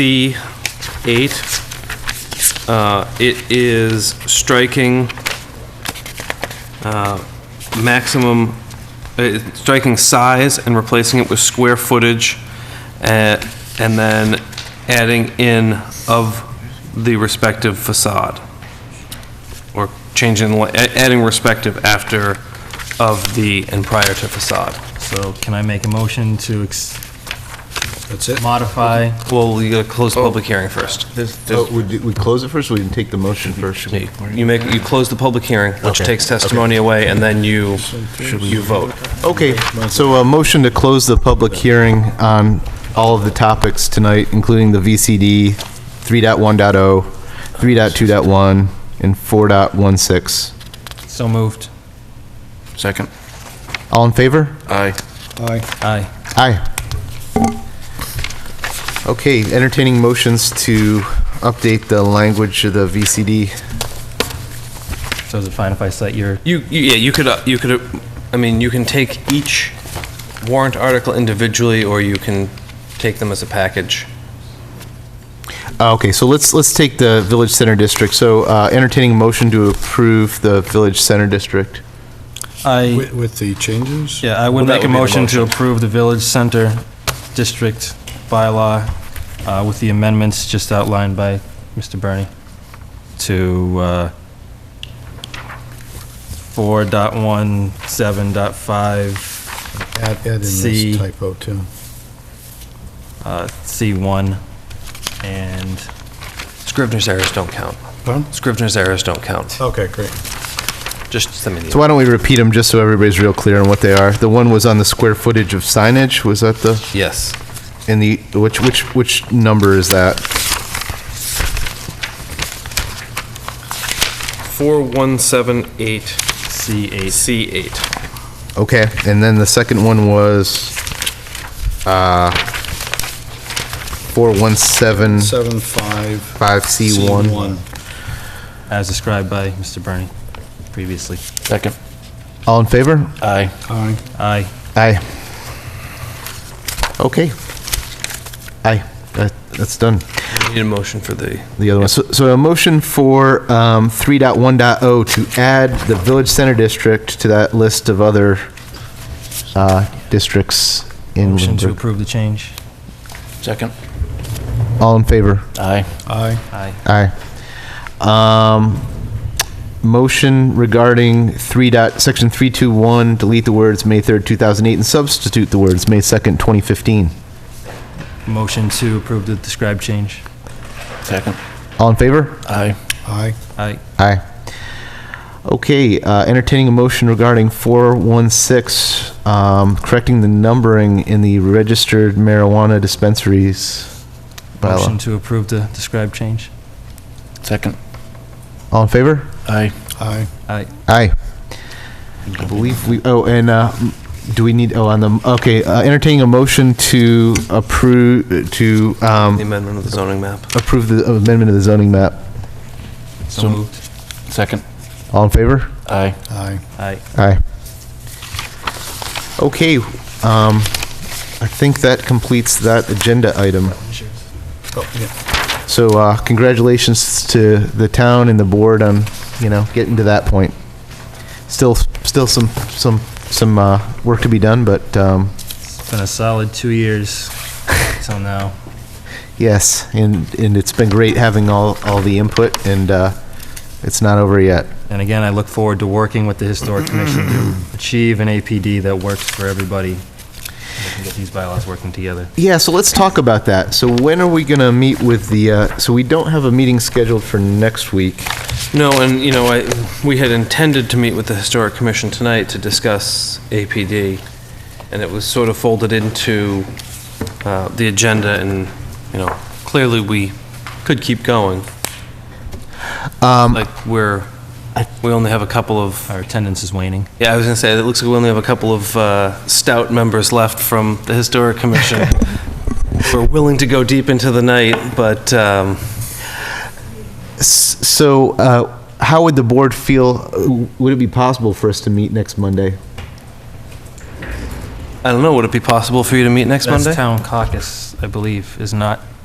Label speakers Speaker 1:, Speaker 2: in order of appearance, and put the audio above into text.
Speaker 1: C eight, uh, it is striking, uh, maximum, uh, striking size and replacing it with square footage, uh, and then adding in of the respective facade. Or changing, li- a- adding respective after of the and prior to facade.
Speaker 2: So can I make a motion to ex-
Speaker 3: That's it?
Speaker 2: modify?
Speaker 1: Well, we gotta close the public hearing first.
Speaker 4: Oh, We we close it first, or we can take the motion first?
Speaker 1: You you make, you close the public hearing, which
Speaker 4: Okay,
Speaker 1: takes testimony away, and then you, you vote.
Speaker 4: Okay, so a motion to close the public hearing on all of the topics tonight, including the VCD 3.1.0, 3.2.1, and 4.16.
Speaker 2: So moved.
Speaker 3: Second.
Speaker 4: All in favor?
Speaker 3: Aye.
Speaker 2: Aye. Aye.
Speaker 4: Aye. Okay, entertaining motions to update the language of the VCD.
Speaker 2: So is it fine if I cite your,
Speaker 1: You, you- yeah, you could, uh, you could, uh, I mean, you can take each warrant article individually, or you can take them as a package.
Speaker 4: Uh, Okay, so let's, let's take the Village Center District. So uh, entertaining motion to approve the Village Center District.
Speaker 2: I,
Speaker 3: With with the changes?
Speaker 2: yeah, I would
Speaker 1: Well, that
Speaker 2: make a
Speaker 1: would be the
Speaker 2: motion to
Speaker 1: motion.
Speaker 2: approve the Village Center District bylaw uh, with the amendments just outlined by Mr. Bernie to uh, 4.17.5,
Speaker 3: Add add in
Speaker 2: C.
Speaker 3: this typo, too.
Speaker 2: uh, C1, and
Speaker 1: Scrivener's errors don't count.
Speaker 3: Pardon?
Speaker 1: Scrivener's errors don't count.
Speaker 3: Okay, great.
Speaker 1: Just send me
Speaker 4: So
Speaker 1: the,
Speaker 4: why don't we repeat them just so everybody's real clear on what they are? The one was on the square footage of signage, was that the,
Speaker 1: yes.
Speaker 4: in the, which, which, which number is that?
Speaker 1: 4178
Speaker 2: C8.
Speaker 1: C8.
Speaker 4: Okay, and then the second one was, uh,
Speaker 2: Mm.
Speaker 4: 4175C1.
Speaker 3: Seven, five. C1.
Speaker 2: as described by Mr. Bernie previously.
Speaker 1: Second.
Speaker 4: All in favor?
Speaker 1: Aye.
Speaker 3: Aye.
Speaker 2: Aye.
Speaker 4: Aye. Okay. Aye, that, that's done.
Speaker 1: Need a motion for the,
Speaker 4: the other one. So, so a motion for um, 3.1.0 to add the Village Center District to that list of other uh, districts in
Speaker 2: Motion to
Speaker 4: Lunenburg.
Speaker 2: approve the change.
Speaker 3: Second.
Speaker 4: All in favor?
Speaker 3: Aye. Aye.
Speaker 2: Aye.
Speaker 4: Aye. Um, Motion regarding 3. Dot, section 321, delete the words May 3rd, 2008, and substitute the words May 2nd, 2015.
Speaker 2: Motion to approve the described change.
Speaker 3: Second.
Speaker 4: All in favor?
Speaker 3: Aye. Aye.
Speaker 2: Aye.
Speaker 4: Aye. Okay, uh, entertaining a motion regarding 416, um, correcting the numbering in the registered marijuana dispensaries. bylaw.
Speaker 2: Motion to approve the described change.
Speaker 3: Second.
Speaker 4: All in favor?
Speaker 3: Aye. Aye.
Speaker 2: Aye.
Speaker 4: Aye. I believe we, oh, and uh, do we need, oh, on the, okay, uh, entertaining a motion to approve, to
Speaker 1: the
Speaker 4: um,
Speaker 1: amendment of the zoning map.
Speaker 4: approve the amendment of the zoning map.
Speaker 2: So moved.
Speaker 3: Second.
Speaker 4: All in favor?
Speaker 3: Aye. Aye.
Speaker 2: Aye.
Speaker 4: Aye. Okay, um, I think that completes that agenda item.
Speaker 3: Oh, yeah.
Speaker 4: So uh, congratulations to the town and the board on, you know, getting to that point. Still, still some, some, some uh, work to be done, but um,
Speaker 2: It's been a solid two years till now.
Speaker 4: yes, and, and it's been great having all, all the input, and uh, it's not over yet.
Speaker 2: And again, I look forward to working with the Historic Commission to achieve an APD that works for everybody. We can get these bylaws working together.
Speaker 4: Yeah, so let's talk about that. So when are we going to meet with the, uh, so we don't have a meeting scheduled for next week.
Speaker 1: No, and, you know, I, we had intended to meet with the Historic Commission tonight to discuss APD, and it was sort of folded into uh, the agenda, and, you know, clearly we could keep going. Like, we're, we only have a couple of,
Speaker 2: Our attendance is waning.
Speaker 1: yeah, I was gonna say, it looks like we only have a couple of uh, stout members left from the Historic Commission. We're willing to go deep into the night, but, um,
Speaker 4: S- So, uh, how would the board feel, would it be possible for us to meet next Monday?
Speaker 1: I don't know, would it be possible for you to meet next Monday?
Speaker 2: That's town caucus, I believe, is not